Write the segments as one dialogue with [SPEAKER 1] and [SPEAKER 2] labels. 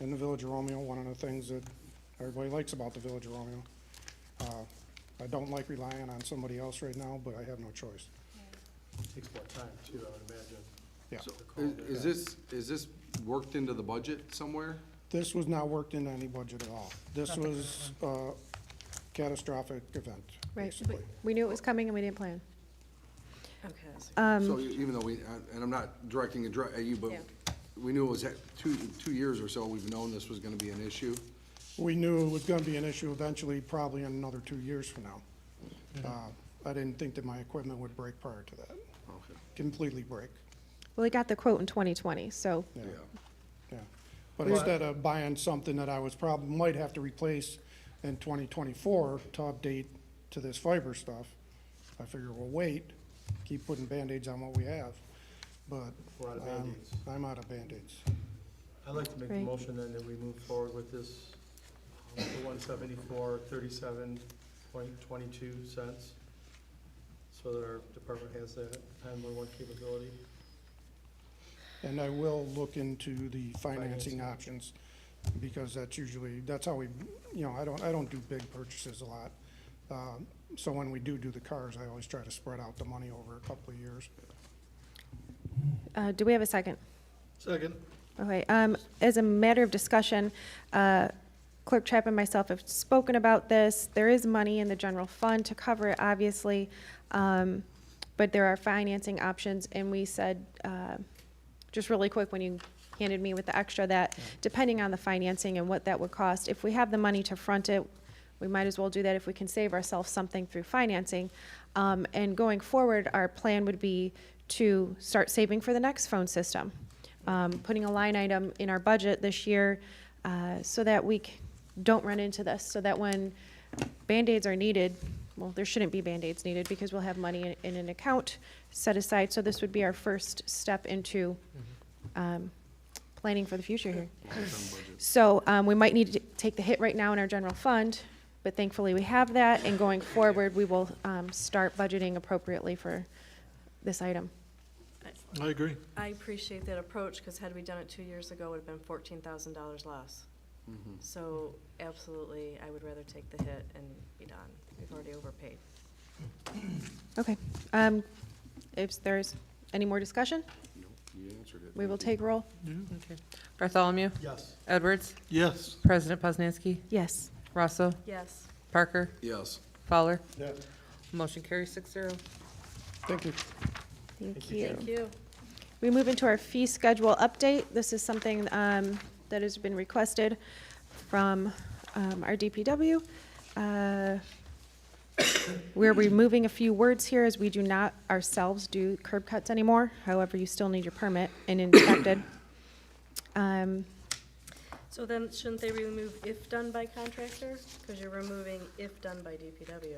[SPEAKER 1] in the Village of Romeo, one of the things that everybody likes about the Village of Romeo. Uh, I don't like relying on somebody else right now, but I have no choice.
[SPEAKER 2] Takes more time too, I would imagine.
[SPEAKER 1] Yeah.
[SPEAKER 2] So the call
[SPEAKER 3] Is
[SPEAKER 2] there.
[SPEAKER 3] is this, is this worked into the budget somewhere?
[SPEAKER 1] This was not worked into any budget at all. This was a catastrophic event,
[SPEAKER 4] Right,
[SPEAKER 1] basically.
[SPEAKER 4] we knew it was coming and we didn't plan.
[SPEAKER 5] Okay. that's-
[SPEAKER 3] So e- even though we, and I'm not directing a dr- at you, but
[SPEAKER 5] Yeah.
[SPEAKER 3] we knew it was, at- two, two years or so, we've known this was gonna be an issue.
[SPEAKER 1] We knew it was gonna be an issue eventually, probably in another two years from now. Uh, I didn't think that my equipment would break prior to that,
[SPEAKER 3] Okay,
[SPEAKER 1] completely break,
[SPEAKER 4] Well, he got the quote in 2020, so
[SPEAKER 1] yeah,
[SPEAKER 3] yeah.
[SPEAKER 1] yeah. But instead of buying something that I was probably, might have to replace in twenty twenty-four to update to this fiber stuff, I figure we'll wait, keep putting Band-Aids on what we have, but.
[SPEAKER 2] We're out of
[SPEAKER 1] I'm-
[SPEAKER 2] Band-Aids.
[SPEAKER 1] I'm out of Band-Aids.
[SPEAKER 2] I'd like to make the
[SPEAKER 4] Right.
[SPEAKER 2] motion then that we move forward with this, um, for one seventy-four, thirty-seven point twenty-two cents. So that our department has that nine-one-one capability.
[SPEAKER 1] And I will look into the
[SPEAKER 2] Financing.
[SPEAKER 1] financing options, because that's usually, that's how we, you know, I don't, I don't do big purchases a lot. Um, So when we do do the cars, I always try to spread out the money over a couple of years.
[SPEAKER 4] uh, do we have a second?
[SPEAKER 2] Second.
[SPEAKER 4] Okay, um, as a matter of discussion, uh, Clerk Trapp and myself have spoken about this. There is money in the general fund to cover it, obviously, um, but there are financing options, and we said, uh, just really quick, when you handed me with the extra, that depending on the financing and what that would cost, if we have the money to front it, we might as well do that if we can save ourselves something through financing. Um, and going forward, our plan would be to start saving for the next phone system. Um, putting a line item in our budget this year, uh, so that we c- don't run into this, so that when Band-Aids are needed, well, there shouldn't be Band-Aids needed because we'll have money in, in an account set aside. So this would be our first step into, um, planning for the future here.
[SPEAKER 3] Long-term budget.
[SPEAKER 4] So um, we might need to take the hit right now in our general fund, but thankfully we have that, and going forward, we will um, start budgeting appropriately for this item.
[SPEAKER 6] I agree.
[SPEAKER 5] I appreciate that approach, because had we done it two years ago, it would have been fourteen thousand dollars less. So absolutely, I would rather take the hit and be done. We've already overpaid.
[SPEAKER 4] Okay. um, If there's any more discussion,
[SPEAKER 3] No, You answered it.
[SPEAKER 4] we will
[SPEAKER 3] Thank
[SPEAKER 4] take roll.
[SPEAKER 7] Okay. Bartholomew,
[SPEAKER 2] Yes.
[SPEAKER 7] Edwards,
[SPEAKER 6] Yes.
[SPEAKER 7] President Poznanski,
[SPEAKER 4] Yes.
[SPEAKER 7] Rosso,
[SPEAKER 5] Yes.
[SPEAKER 7] Parker,
[SPEAKER 3] you. Yes,
[SPEAKER 7] Fowler.
[SPEAKER 2] Yes.
[SPEAKER 7] Motion carries six zero.
[SPEAKER 1] Thank you.
[SPEAKER 4] Thank you.
[SPEAKER 5] Thank you.
[SPEAKER 4] We move into our fee schedule update. This is something um, that has been requested from um, our DPW. Uh, We're removing a few words here as we do not ourselves do curb cuts anymore. However, you still need your permit and inspected. Um,
[SPEAKER 5] So then, shouldn't they remove if done by contractor? Because you're removing if done by DPW.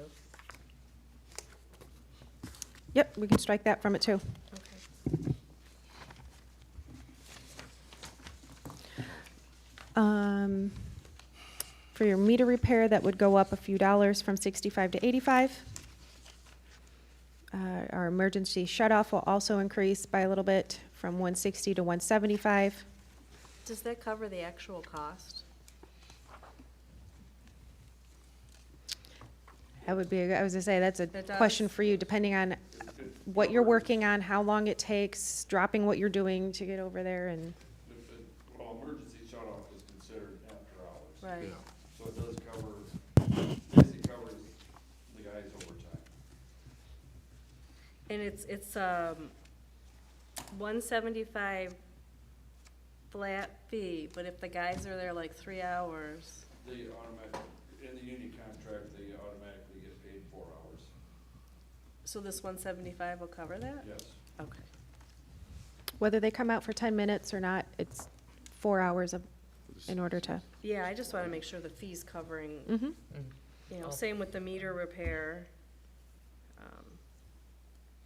[SPEAKER 4] Yep, we can strike that from it too.
[SPEAKER 5] Okay.
[SPEAKER 4] Um, For your meter repair, that would go up a few dollars from 65 to 85. Uh, Our emergency shut-off will also increase by a little bit from 160 to 175.
[SPEAKER 5] Does that cover the actual cost?
[SPEAKER 4] That would be, I was gonna say, that's a
[SPEAKER 5] That does.
[SPEAKER 4] question for you, depending on what you're working on, how long it takes, dropping what you're doing to get over there and,
[SPEAKER 8] The- the- Well, emergency shut-off is considered after hours.
[SPEAKER 5] Right.
[SPEAKER 3] yeah.
[SPEAKER 8] So it does cover, basically covers the guys overtime.
[SPEAKER 5] And it's, it's, um, one seventy-five flat fee, but if the guys are there like three hours,
[SPEAKER 8] They automatic, in the union contract, they automatically get paid four hours.
[SPEAKER 5] so this one seventy-five will cover that?
[SPEAKER 8] Yes,
[SPEAKER 5] Okay.
[SPEAKER 4] whether they come out for 10 minutes or not, it's four hours of, in order to,
[SPEAKER 5] Yeah, I just wanna make sure the fee's covering,
[SPEAKER 4] Mhm.
[SPEAKER 5] you know, same with the meter repair. Um,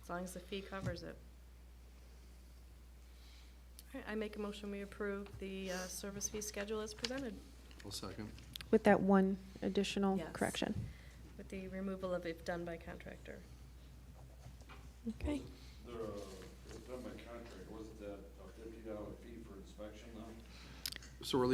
[SPEAKER 5] As long as the fee covers it. All right, I make a motion, we approve the, uh, service fee schedule as presented.
[SPEAKER 3] I'll second.
[SPEAKER 4] with that one additional
[SPEAKER 5] Yes.
[SPEAKER 4] correction.
[SPEAKER 5] With the removal of if done by contractor.
[SPEAKER 4] Okay.
[SPEAKER 8] they're, uh, it's done by contract, wasn't that a fifty dollar fee for inspection though?
[SPEAKER 3] So we're